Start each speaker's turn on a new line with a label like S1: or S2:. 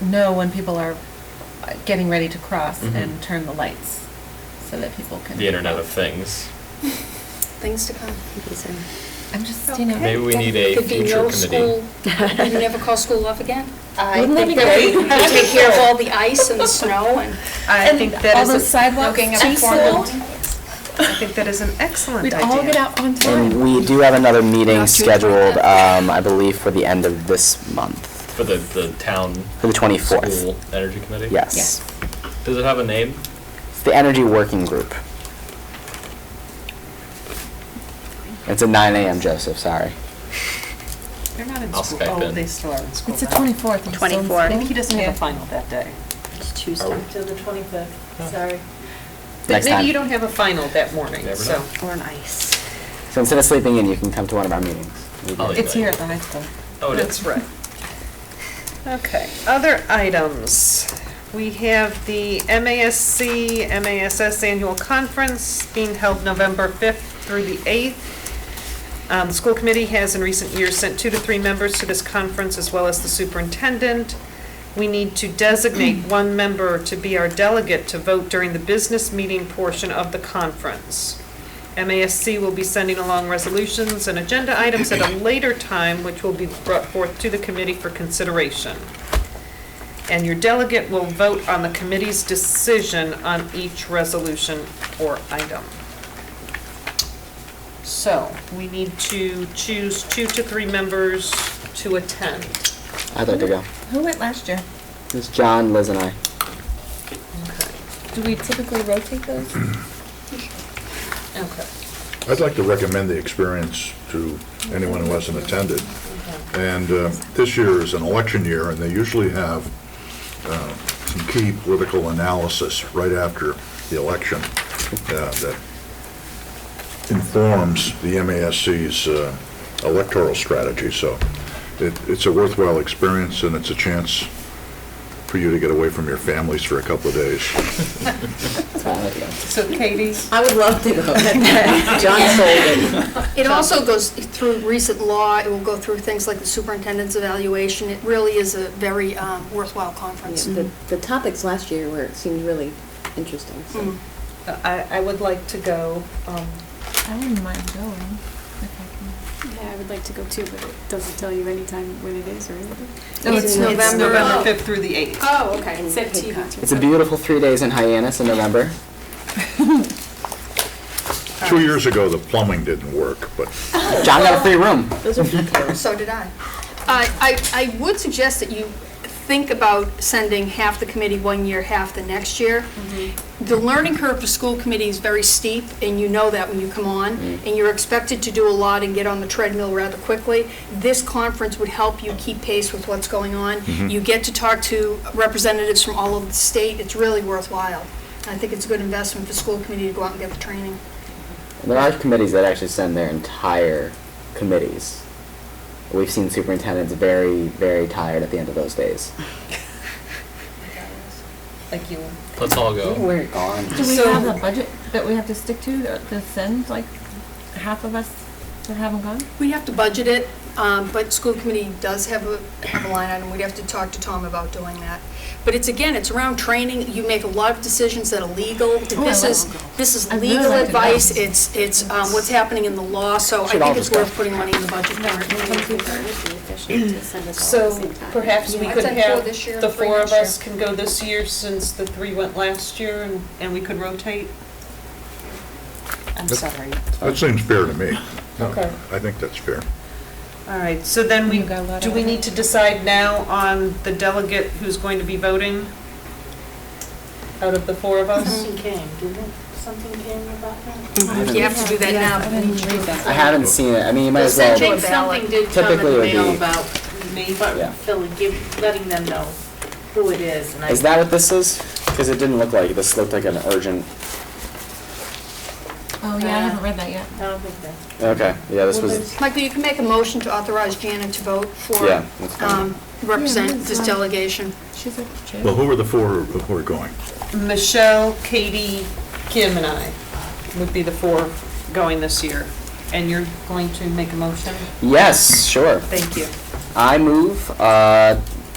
S1: know when people are uh, getting ready to cross
S2: Mhm.
S1: and turn the lights so that people can.
S2: the Internet of Things.
S3: Things to come. he said.
S1: I'm just, you know.
S2: Maybe we need a
S3: Could be
S2: future
S3: no
S2: committee.
S3: school, you never call school off again? I
S4: Wouldn't that
S3: think
S4: be
S3: that we
S4: great?
S3: could take care of all the ice and the snow and.
S4: I
S1: And
S4: think that
S1: all
S4: is,
S1: those
S4: a-
S1: sidewalks
S3: looking at
S1: too
S3: formal-
S1: slow.
S4: I think that is an excellent
S1: We'd
S4: idea.
S1: all get out on
S5: And
S1: time.
S5: we do have another meeting
S3: Not sure
S5: scheduled,
S3: about
S5: um, I believe, for the end of this month,
S2: For the, the town.
S5: for the 24th.
S2: School Energy Committee?
S5: Yes.
S2: Does it have a name?
S5: It's the Energy Working Group. It's at 9 AM, Joseph, sorry.
S4: They're not in
S2: I'll
S4: school.
S2: Skype
S4: Oh,
S2: in.
S4: they still are in school
S1: It's the
S4: now.
S1: 24th. I'm still in
S3: 24th.
S1: school.
S4: Maybe he doesn't have a
S1: Yeah.
S4: final that day.
S3: It's Tuesday.
S6: Till the 25th, sorry.
S5: Next
S4: Maybe you
S5: time.
S4: don't have a final that morning,
S2: Never
S4: so.
S2: know.
S3: Or an ice.
S5: So instead of sleeping in, you can come to one of our meetings. We
S2: I'll
S5: do.
S2: leave.
S1: It's here at the high school.
S2: Oh, it is.
S4: That's right. Okay, other items. We have the MASC, MASS Annual Conference being held November 5th through the 8th. Um, The school committee has in recent years sent two to three members to this conference, as well as the superintendent. We need to designate one member to be our delegate to vote during the business meeting portion of the conference. MASC will be sending along resolutions and agenda items at a later time, which will be brought forth to the committee for consideration. And your delegate will vote on the committee's decision on each resolution or item. So, we need to choose two to three members to attend.
S5: I'd like to go.
S1: Who went last year?
S5: It's John, Liz, and I.
S4: Okay.
S1: Do we typically rotate those?
S4: Okay.
S7: I'd like to recommend the experience to anyone who hasn't attended. And uh, this year is an election year, and they usually have uh, some key political analysis right after the election uh, that informs the MASC's uh, electoral strategy. So it- it's a worthwhile experience, and it's a chance for you to get away from your families for a couple of days.
S5: That's fine, I'd like to go.
S4: So Katie?
S6: I would love to go. John Solden.
S3: It also goes through recent law, it will go through things like the superintendent's evaluation. It really is a very um, worthwhile conference.
S4: Mm.
S6: The, the topics last year were, seemed really interesting, so.
S3: Mm.
S4: I, I would like to go, um,
S1: I wouldn't mind going. if
S8: Yeah, I would like to go too, but it doesn't tell you anytime when it is or anything.
S1: I can.
S3: It's
S4: it's
S3: November.
S4: November
S3: Oh.
S4: 5th through the 8th.
S3: Oh, okay.
S6: And
S8: It's at
S6: Cape
S8: T
S6: Cod.
S8: Beach or
S5: It's a
S8: something.
S5: beautiful three days in Hyannis in November.
S7: Two years ago, the plumbing didn't work, but
S5: John got a free room.
S3: So did I. Uh, I, I I would suggest that you think about sending half the committee one year, half the next year. The learning curve for school committee is very steep, and you know that when you come on, and you're expected to do a lot and get on the treadmill rather quickly. This conference would help you keep pace with what's going on. You get to talk to representatives from all over the state. It's really worthwhile. I think it's a good investment for school committee to go out and get the training.
S5: There are committees that actually send their entire committees. We've seen superintendents very, very tired at the end of those days.
S4: Like you.
S2: Let's all
S6: You
S2: go.
S6: were gone.
S1: Do we
S4: So-
S1: have a budget that we have to stick to, that- to send, like, half of us that haven't gone?
S3: We have to budget it, um, but school committee does have a, have a line item, we'd have to talk to Tom about doing that. But it's, again, it's around training, you make a lot of decisions that are legal, this
S1: like-
S3: is, this is
S1: I'd really
S3: legal
S1: like to
S3: advice,
S1: know.
S3: it's, it's um, what's happening in the law, so I
S5: Should all
S3: think it's
S5: just go.
S3: worth putting money in the budget for it.
S4: So perhaps we
S3: Yeah,
S4: could
S3: I'd say four
S4: have,
S3: this year and
S4: the
S3: three
S4: four of
S3: next year.
S4: us can go this year since the three went last year and, and we could rotate? I'm sorry.
S7: that seems fair to me.
S4: Okay.
S7: I think that's fair.
S4: All right, so then we,
S1: You got a lot
S4: do
S1: of-
S4: we need to decide now on the delegate who's going to be voting? Out of the four of us?
S6: Something came, didn't, something came about that?
S3: You have to do that now.
S1: I didn't read that.
S5: I haven't seen it. I mean, you might as
S6: I
S5: well.
S6: think something did come in
S5: Typically it
S6: the
S5: would be-
S6: mail about,
S4: Me?
S5: Yeah.
S6: but Philly, give, letting them know who it is, and I.
S5: Is that what this is? Because it didn't look like it. This looked like an urgent.
S1: Oh, yeah, I haven't read that yet.
S6: I don't think that's.
S5: Okay, yeah, this was.
S3: Michael, you can make a motion to authorize Janet to vote
S5: Yeah,
S3: for,
S5: that's fine.
S3: um,
S1: Yeah,
S3: represent
S1: that's
S3: this
S1: fine.
S3: delegation.
S1: She's a jerk.
S7: Well, who are the four who are going?
S4: Michelle, Katie, Kim, and I would be the four going this year. And you're going to make a motion?
S5: Yes, sure.
S4: Thank you.
S5: I move uh,